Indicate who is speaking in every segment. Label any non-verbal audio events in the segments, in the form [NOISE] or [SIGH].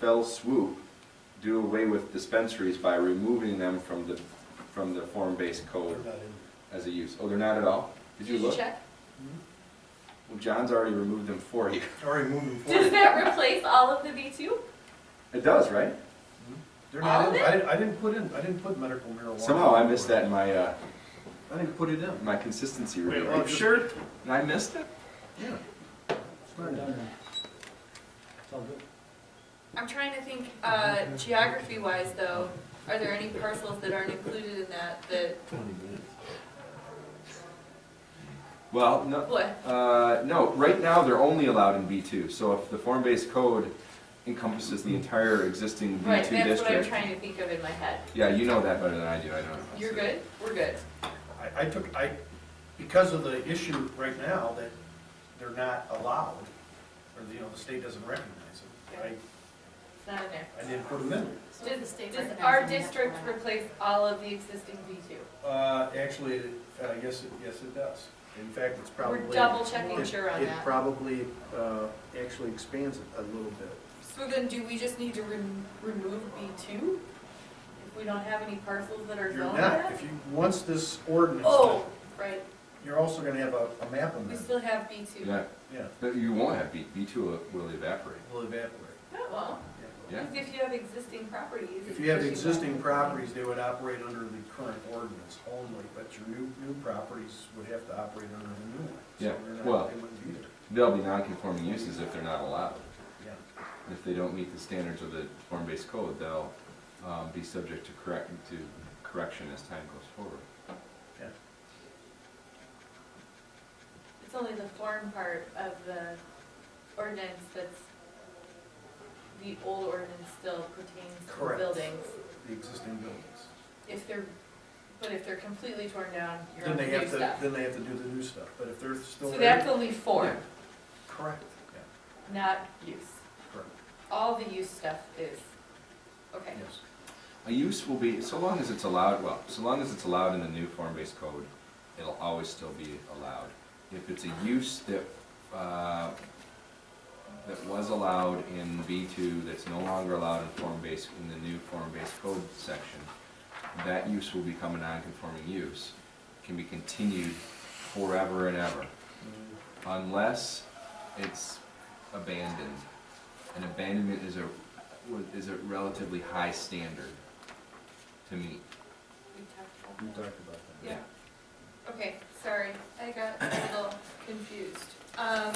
Speaker 1: fell swoop do away with dispensaries by removing them from the, from the form-based code as a use. Oh, they're not at all? Did you look?
Speaker 2: check?
Speaker 1: Well, John's already removed them for you.
Speaker 3: Already moving
Speaker 2: Does
Speaker 3: forward.
Speaker 2: that replace all of the B two?
Speaker 1: It does, right?
Speaker 3: They're not
Speaker 2: All
Speaker 3: in,
Speaker 2: of it?
Speaker 3: I didn't, I didn't put in, I didn't put medical marijuana.
Speaker 1: Somehow I missed that in my, uh,
Speaker 3: I didn't put it in.
Speaker 1: my consistency
Speaker 3: Wait,
Speaker 1: review.
Speaker 3: well,
Speaker 1: Are you sure? And I missed it?
Speaker 3: Yeah. It's not in there.
Speaker 2: I'm trying to think, uh, geography wise though, are there any parcels that aren't included in that, that,
Speaker 1: Well, no,
Speaker 2: what?
Speaker 1: uh, no, right now they're only allowed in B two, so if the form-based code encompasses the entire existing B two
Speaker 2: Right,
Speaker 1: district.
Speaker 2: that's what I'm trying to think of in my head.
Speaker 1: Yeah, you know that better than I do, I don't.
Speaker 2: You're good? We're good.
Speaker 3: I, I took, I, because of the issue right now that they're not allowed, or, you know, the state doesn't recognize it,
Speaker 2: It's not in there.
Speaker 3: I, I didn't put them in.
Speaker 4: So if the state
Speaker 2: Does
Speaker 4: recognizes
Speaker 2: our
Speaker 4: them, we have to
Speaker 2: district
Speaker 4: go back.
Speaker 2: replace all of the existing B two?
Speaker 3: Uh, actually, uh, yes, it, yes, it does. In fact, it's probably.
Speaker 2: We're double checking
Speaker 3: it-
Speaker 2: sure on
Speaker 3: It
Speaker 2: that.
Speaker 3: probably, uh, actually expands it a little bit.
Speaker 2: So then do we just need to rem- remove B two? If we don't have any parcels that are
Speaker 3: You're
Speaker 2: zoned
Speaker 3: not,
Speaker 2: that?
Speaker 3: if you, once this ordinance,
Speaker 2: Oh, right,
Speaker 3: you're also gonna have a, a map on
Speaker 2: we
Speaker 3: there,
Speaker 2: still have B two.
Speaker 1: Yeah,
Speaker 3: yeah,
Speaker 1: but you won't have B, B two will evaporate.
Speaker 3: will evaporate.
Speaker 2: Oh, well.
Speaker 1: Yeah.
Speaker 2: Because if you have existing properties.
Speaker 3: If you have
Speaker 2: it's usually-
Speaker 3: existing properties, they would operate under the current ordinance only, but your new, new properties would have to operate under the new one. So
Speaker 1: Yeah,
Speaker 3: they're not-
Speaker 1: well-
Speaker 3: They wouldn't be there,
Speaker 1: They'll be non-conforming uses if they're not allowed.
Speaker 3: yeah.
Speaker 1: If they don't meet the standards of the form-based code, they'll, um, be subject to correct, to correction as time goes forward.
Speaker 2: It's only the form part of the ordinance that's, the old ordinance still pertains to the
Speaker 3: Correct.
Speaker 2: buildings.
Speaker 3: The existing buildings.
Speaker 2: If they're, but if they're completely torn down, you're on
Speaker 3: Then they
Speaker 2: the
Speaker 3: have
Speaker 2: new
Speaker 3: to,
Speaker 2: stuff.
Speaker 3: then they have to do the new stuff, but if they're still.
Speaker 2: So
Speaker 3: there-
Speaker 2: that's only form,
Speaker 3: Correct, yeah,
Speaker 2: not use.
Speaker 3: correct,
Speaker 2: All the use stuff is, okay.
Speaker 3: yes.
Speaker 1: A use will be, so long as it's allowed, well, so long as it's allowed in the new form-based code, it'll always still be allowed. If it's a use that, uh, that was allowed in B two, that's no longer allowed in form-based, in the new form-based code section, that use will become a non-conforming use, can be continued forever and ever, unless it's abandoned. And abandonment is a, is a relatively high standard to meet.
Speaker 2: We talked about
Speaker 3: We talked
Speaker 2: that.
Speaker 3: about that.
Speaker 2: Yeah. Okay, sorry, I got a little confused. Um,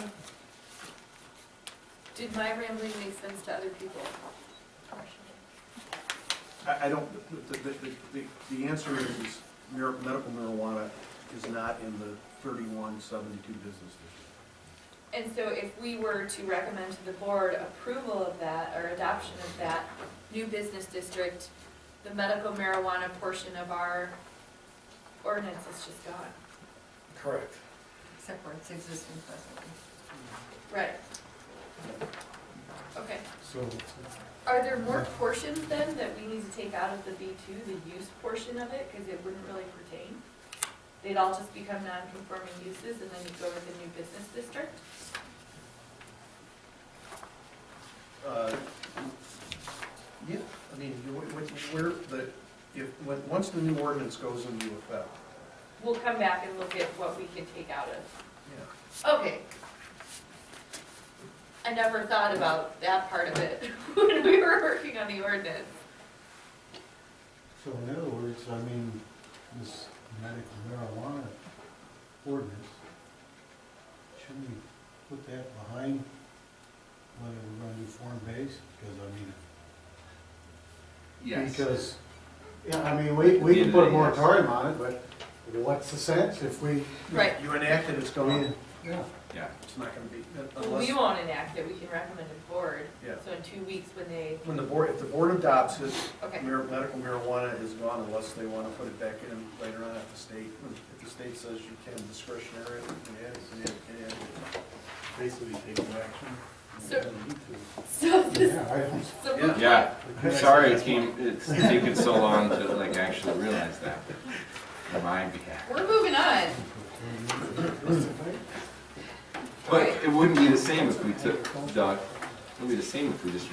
Speaker 2: did my rambling make sense to other people?
Speaker 3: I, I don't, the, the, the- the, the answer is mar- medical marijuana is not in the thirty-one seventy-two business district.
Speaker 2: And so if we were to recommend to the board approval of that or adoption of that new business district, the medical marijuana portion of our ordinance is just gone.
Speaker 3: Correct.
Speaker 4: Except for it's existing presently.
Speaker 2: Right. Okay,
Speaker 5: So,
Speaker 2: are there more portions then that we need to take out of the B two, the use portion of it, because it wouldn't really pertain? They'd all just become non-conforming uses and then you go with the new business district?
Speaker 3: Uh, Yeah, I mean, you- what, where, the, if, when, once the new ordinance goes into effect,
Speaker 2: We'll come back and look at what we can take out of.
Speaker 3: yeah.
Speaker 2: Okay. I never thought about that part of it [LAUGHS] when we were working on the ordinance.
Speaker 5: so in other words, I mean, this medical marijuana ordinance, should we put that behind whether we're gonna do form-based? Because I mean, because, yeah, I mean, we, we can put a moratorium on it, but what's the sense if we,
Speaker 2: Right.
Speaker 3: You enact it, it's
Speaker 5: I
Speaker 3: gone,
Speaker 5: mean, yeah.
Speaker 1: Yeah,
Speaker 3: it's not gonna be, uh,
Speaker 2: Well,
Speaker 3: unless,
Speaker 2: we won't enact it, we can recommend it to the board.
Speaker 3: Yeah.
Speaker 2: So in two weeks when they,
Speaker 3: when the board, if the board adopts it,
Speaker 2: okay,
Speaker 3: mar- medical marijuana is gone unless they wanna put it back in later on if the state, if the state says you can discretionary, you can add it, you can add it.
Speaker 5: Basically taking action.
Speaker 2: So- so this,
Speaker 5: Yeah, I don't.
Speaker 2: so
Speaker 3: Yeah.
Speaker 1: yeah,
Speaker 5: I-
Speaker 1: sorry it came, it's taken so long to like actually realize that. On My behalf.
Speaker 2: we're moving on.
Speaker 1: But it wouldn't be the same if we took, Doug, it would be the same if we just